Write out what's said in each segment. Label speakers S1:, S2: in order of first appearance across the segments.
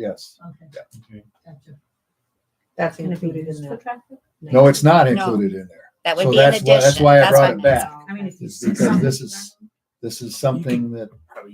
S1: Yes.
S2: Okay,
S3: Okay.
S2: gotcha.
S4: That's
S2: Gonna be
S4: included in
S2: used for
S4: that.
S2: traffic?
S1: No, it's not
S5: No.
S1: included in there.
S5: That
S1: So
S5: would be an
S1: that's why- that's
S5: addition.
S1: why I
S5: what
S1: brought it back.
S5: meant.
S2: I mean, if you
S1: It's
S2: see
S1: because
S2: something.
S1: this is, this is something that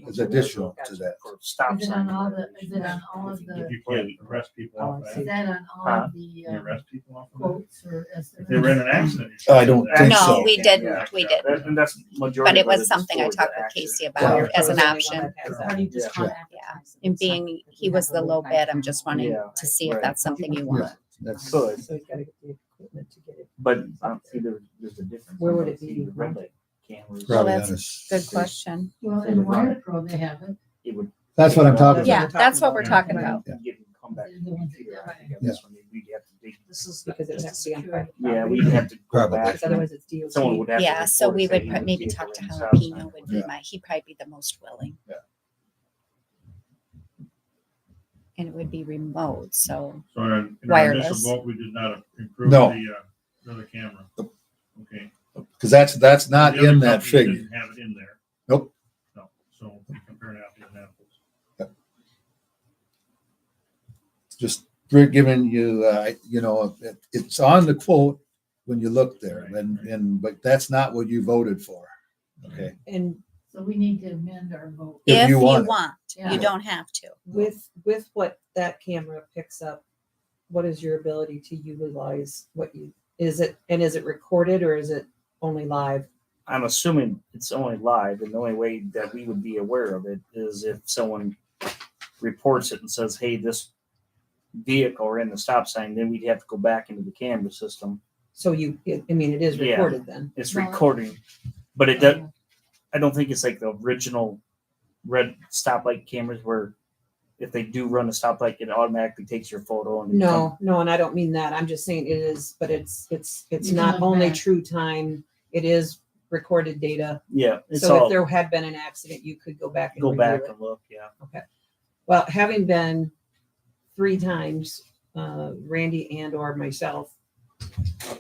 S1: is additional to that.
S6: Stop
S2: Is it on all
S6: sign.
S2: the, is it on all of the,
S3: You can't arrest people off
S4: Oh, I
S3: that.
S4: see.
S2: is that on all
S6: Huh?
S2: of the
S3: You
S2: um,
S3: arrest people off of that.
S2: quotes or
S3: If they were
S2: estimates?
S3: in an accident. you should
S1: I don't
S3: arrest
S1: think
S3: them.
S1: so.
S5: No, we
S3: Yeah.
S5: didn't, we didn't.
S6: That- And that's majority.
S5: But it
S6: of what
S5: was something I
S6: is,
S5: talked
S6: the
S5: with
S6: action.
S5: Casey
S1: Yeah.
S5: about as an option.
S2: Or do you just call it advertising?
S5: And being, he was the low bid, I'm just wanting
S6: Yeah,
S5: to see if
S6: right.
S5: that's something you want.
S1: That's,
S6: Could,
S4: So he's gotta get the equipment to get it.
S6: but I don't see there, there's a difference.
S4: Where would it be?
S6: See the Red light cameras.
S5: Well,
S1: probably
S5: Right.
S1: not
S5: that's
S1: as-
S5: Good question.
S2: Well, in Waterpro, they have it.
S6: It would.
S1: That's what I'm talking about.
S5: Yeah, that's what we're talking about.
S1: Yeah.
S6: You can come back.
S2: They're the
S6: and
S2: ones that
S6: figure out, I think,
S2: do
S6: on this one, We'd have to dig.
S2: This is.
S4: Because it has to be on private
S6: Yeah,
S4: property.
S6: we'd have to. go
S1: Probably.
S6: back.
S4: Because otherwise it's DOT.
S6: Someone would have. to
S5: Yeah, so
S6: report
S5: we
S6: it, say
S5: would
S6: you
S5: pro-
S6: would
S5: maybe
S6: see a
S5: talk to
S6: red stop sign.
S5: Jalapeno would be
S1: Yeah.
S5: my, he'd probably be the most willing.
S1: Yeah.
S5: And it would be remote, so
S3: So uh, in our- in our initial
S5: Wireless.
S3: vote, we did not improve the,
S1: No.
S3: uh, another camera. Okay.
S1: Cause that's, that's not
S3: The other
S1: in that
S3: company
S1: figure.
S3: didn't Have it in there.
S1: Nope.
S3: No, so we compare it apples and apples.
S1: Just we're giving you, uh, you know, it, it's on the quote when you look there and, and, but that's not what you voted for. Okay.
S4: And
S2: So we need to amend our vote.
S1: If
S5: if
S1: you
S5: you
S1: want it.
S5: want,
S2: Yeah.
S5: you don't have to.
S4: with, with what that camera picks up, what is your ability to utilize what you, is it, and is it recorded or is it only live?
S6: I'm assuming it's only live, and the only way that we would be aware of it is if someone reports it and says, "Hey, this vehicle or in the stop sign," then we'd have to go back into the camera system.
S4: So you, I I mean, it is
S6: Yeah.
S4: recorded then.
S6: It's
S2: Right.
S6: recording, but it does. I don't think it's like the original red stoplight cameras where if they do run a stoplight, it automatically takes your photo and
S4: No, no, and I don't mean that. I'm just saying it is, but it's, it's, it's
S2: You can
S4: not
S2: look
S4: only
S2: back.
S4: true time. It is recorded data.
S6: yeah, it's
S4: So if
S6: all
S4: there had been an accident, you could go back and
S6: go
S4: review
S6: back
S4: it.
S6: and look. Yeah,
S4: Well, having been three times, uh, Randy and or myself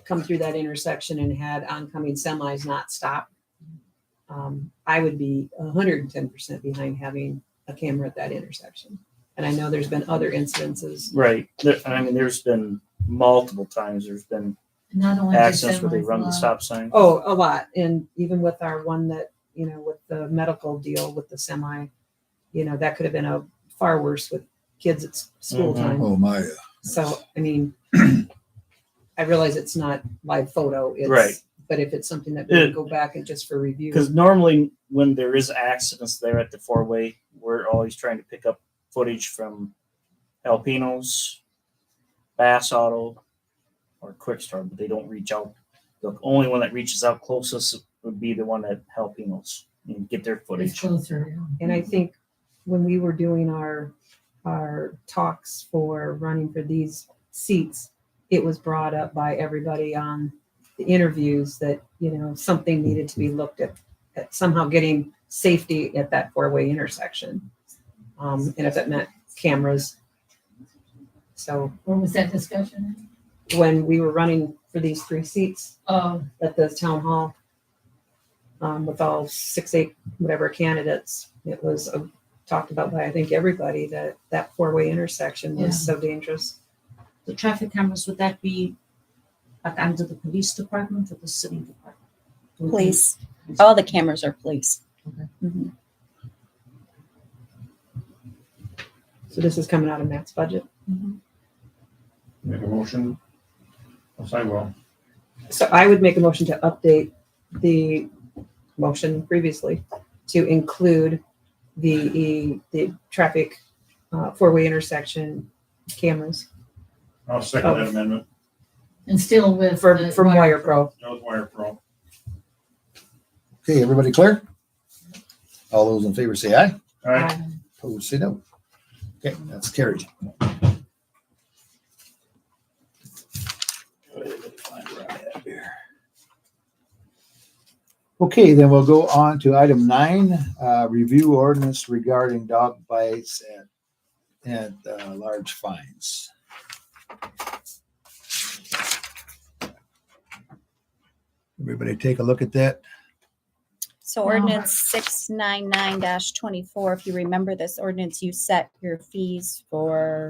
S4: come through that intersection and had oncoming semis not stop, um, I would be hundred and ten percent behind having a camera at that intersection. And I know there's been other incidences.
S6: right. There, I mean, there's been multiple times. There's been
S2: Not only. does
S6: accidents where they
S2: everyone's
S6: run the
S2: law-
S6: stop sign.
S4: Oh, a lot. And even with our one that, you know, with the medical deal with the semi, you know, that could have been a far worse with kids at s- school
S6: Mhm.
S4: time.
S1: Oh, my.
S4: So, I mean, I realize it's not live photo,
S6: Right.
S4: it's, but if it's something that we can
S6: Yeah.
S4: go back and just for review.
S6: Because normally, when there is accidents there at the four way, we're always trying to pick up footage from Alpinos, Bass Auto, or Quick Start, but they don't reach out. The only one that reaches out closest would be the one at Alpinos and get their
S2: It's
S6: footage.
S2: closer. yeah.
S4: And I think when we were doing our, our talks for running for these seats, it was brought up by everybody on the interviews that, you know, something needed to be looked at, at somehow getting safety at that four-way intersection. Um, and if that meant cameras. So
S2: Where was that discussion?
S4: when we were running for these three seats,
S2: Oh,
S4: at the town hall um, with all six, eight, whatever candidates. It was uh, talked about by, I think, everybody that that four-way intersection was so dangerous.
S7: the traffic cameras, would that be like under the police department or the city department?
S5: Mm-hmm.
S7: Would you-
S5: Police, all the cameras are police.
S2: Okay.
S5: Mhm.
S4: So this is coming out of Matt's budget.
S3: Make a motion? Yes, I will.
S4: So I would make a motion to update the motion previously to include the, the traffic uh, four-way intersection cameras
S3: I'll second that
S4: Oh.
S3: amendment.
S2: and still with.
S4: from,
S2: the
S4: from Wire Pro.
S3: That was wire pro.
S1: Okay, everybody clear? All those in favor say aye.
S3: All right,
S1: Opposed, say no. Okay, that's carried. Okay, then we'll go on to item nine, uh, review ordinance regarding dog bites and, and, uh, large fines. Everybody take a look at that.
S5: So ordinance six nine nine twenty-four, if you remember this ordinance, you set your fees for